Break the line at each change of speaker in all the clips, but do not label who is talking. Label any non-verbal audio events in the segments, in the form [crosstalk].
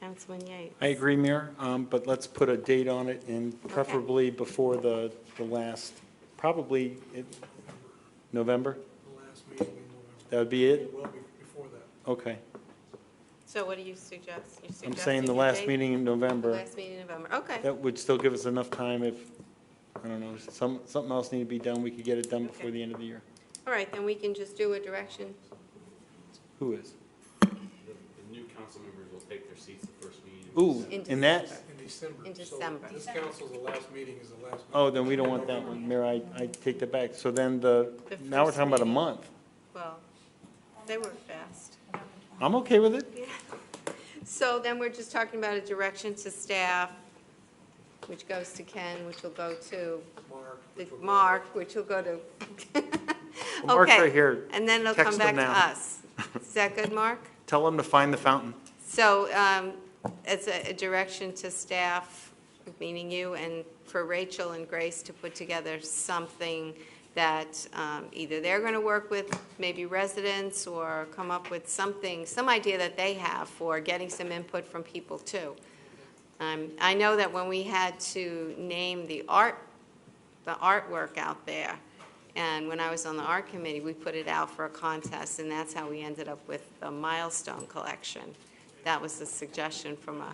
Councilman Yates.
I agree, Mayor, um, but let's put a date on it and preferably before the, the last, probably it- November?
the last meeting in November.
That would be it?
It will be before that.
Okay.
So what do you suggest? You're
I'm
suggesting
saying
a
the last
date?
meeting in November.
Last meeting in November, okay.
That would still give us enough time if, I don't know, some, something else need to be done, we could get it done before
Okay.
the end of the year.
All right, then we can just do a direction.
Who is?
The the new council members will take their seats the first meeting. in
Ooh,
December.
In
and that,
In December.
In
So
December.
This council's, the last meeting is the last.
oh,
meeting.
then we don't want that one, Mayor, I, I take that back. So then the,
The
now we're
first
talking about a
meeting.
month.
Well, they were fast.
I'm okay with it.
So then we're just talking about a direction to staff, which goes to Ken, which will go to
Mark.
the
which will go-
Mark, which will go to. [laughs]
Mark's
Okay.
right here.
And then it'll come
Text
back
him
to
now.
us. Is that good, Mark?
[laughs] Tell them to find the fountain.
So um, it's a a direction to staff, meaning you, and for Rachel and Grace to put together something that um, either they're going to work with, maybe residents, or come up with something, some idea that they have for getting some input from people, too. Um, I know that when we had to name the art, the artwork out there, and when I was on the art committee, we put it out for a contest, and that's how we ended up with the Milestone Collection. That was a suggestion from a,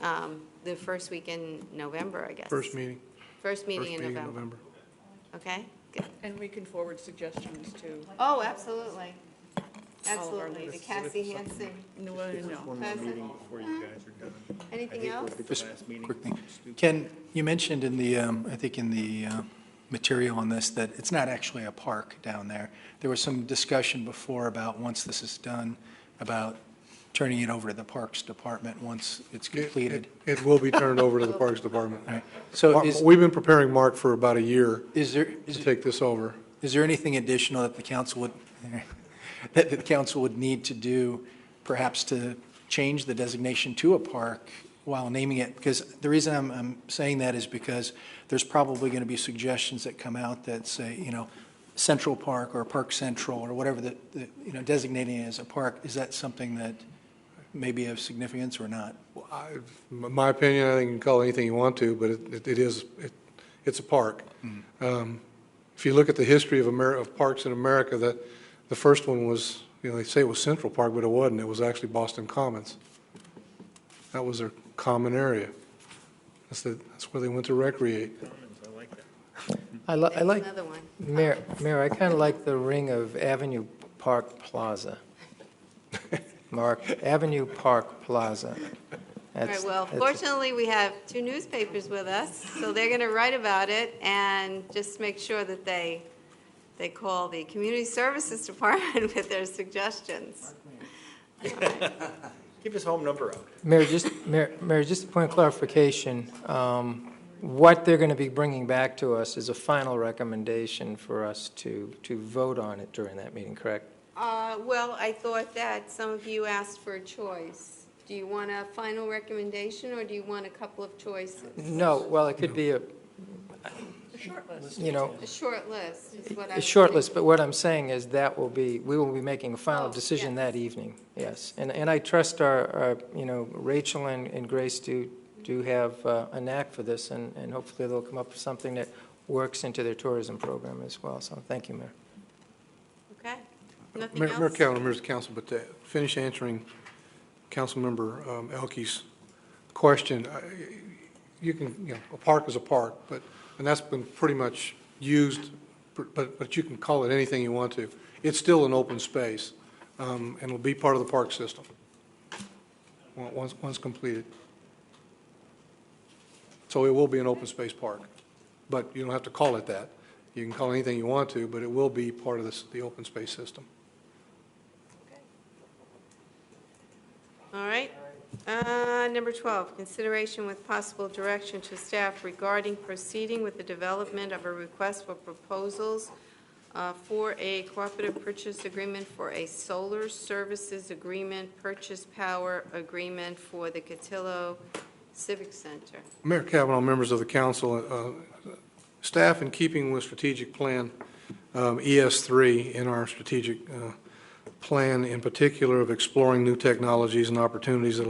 um, the first week in November, I guess.
First meeting.
First
First
meeting in November.
November.
Okay? Good.
And we can forward suggestions to,
Oh, absolutely.
our
Absolutely. The
leaders.
Cassie Hansen
no, no.
present.
Before you guys are done.
Anything else?
Just quick thing.
Ken, you mentioned in the, um, I think in the uh, material on this, that it's not actually a park down there. There was some discussion before about, once this is done, about turning it over to the Parks Department once it's completed.
It will be turned over to the Parks Department.
All right. So
Mark-
is,
We've been preparing Mark for about a year
is there,
to
is
take this over.
is there anything additional that the council would, [laughs] that the council would need to do, perhaps to change the designation to a park while naming it? Because the reason I'm, I'm saying that is because there's probably going to be suggestions that come out that say, you know, Central Park or Park Central or whatever that, that, you know, designating it as a park, is that something that may be of significance or not?
Well, I- m- My opinion, I think you can call it anything you want to, but it- it it is, it- it's a park. Um, If you look at the history of Amer, of parks in America, that, the first one was, you know, they say it was Central Park, but it wasn't. It was actually Boston Commons. That was their common area. That's the, that's where they went to recreate.
I li- I
That's
like,
Another one.
Mayor, Mayor, I kind of like the ring of Avenue Park Plaza. Mark, Avenue Park Plaza.
All
That's-
right, well,
that's-
fortunately, we have two newspapers with us, so they're going to write about it and just make sure that they, they call the Community Services [laughs] Department with their suggestions.
Give his home number out.
Mayor, just, Mayor, Mayor, just a point of clarification. Um, What they're going to be bringing back to us is a final recommendation for us to, to vote on it during that meeting, correct?
Uh, Well, I thought that some of you asked for a choice. Do you want a final recommendation, or do you want a couple of choices?
No, well, it could be a,
The short list.
you know,
A short list is what I
a
was
short
thinking.
list, but what I'm saying is that will be, we will be making a final
Oh,
decision
yes.
that evening, yes. And, and I trust our, our, you know, Rachel and, and Grace do, do have uh, a knack for this, and, and hopefully they'll come up with something that works into their tourism program as well, so thank you, Mayor.
Okay, nothing
Mayor Mayor
else?
Callen, members of council, but to finish answering Councilmember um, Elke's question, I- you can, you know, a park is a park, but, and that's been pretty much used, but, but you can call it anything you want to. It's still an open space, um, and will be part of the park system, on- once, once completed. So it will be an open space park, but you don't have to call it that. You can call it anything you want to, but it will be part of this, the open space system.
All right. Uh, Number 12, consideration with possible direction to staff regarding proceeding with the development of a request for proposals uh, for a cooperative purchase agreement for a solar services agreement, purchase power agreement for the Cotillo Civic Center.
Mayor Kavanaugh, members of the council, uh, staff, in keeping with strategic plan um, ES3 in our strategic uh, plan, in particular of exploring new technologies and opportunities that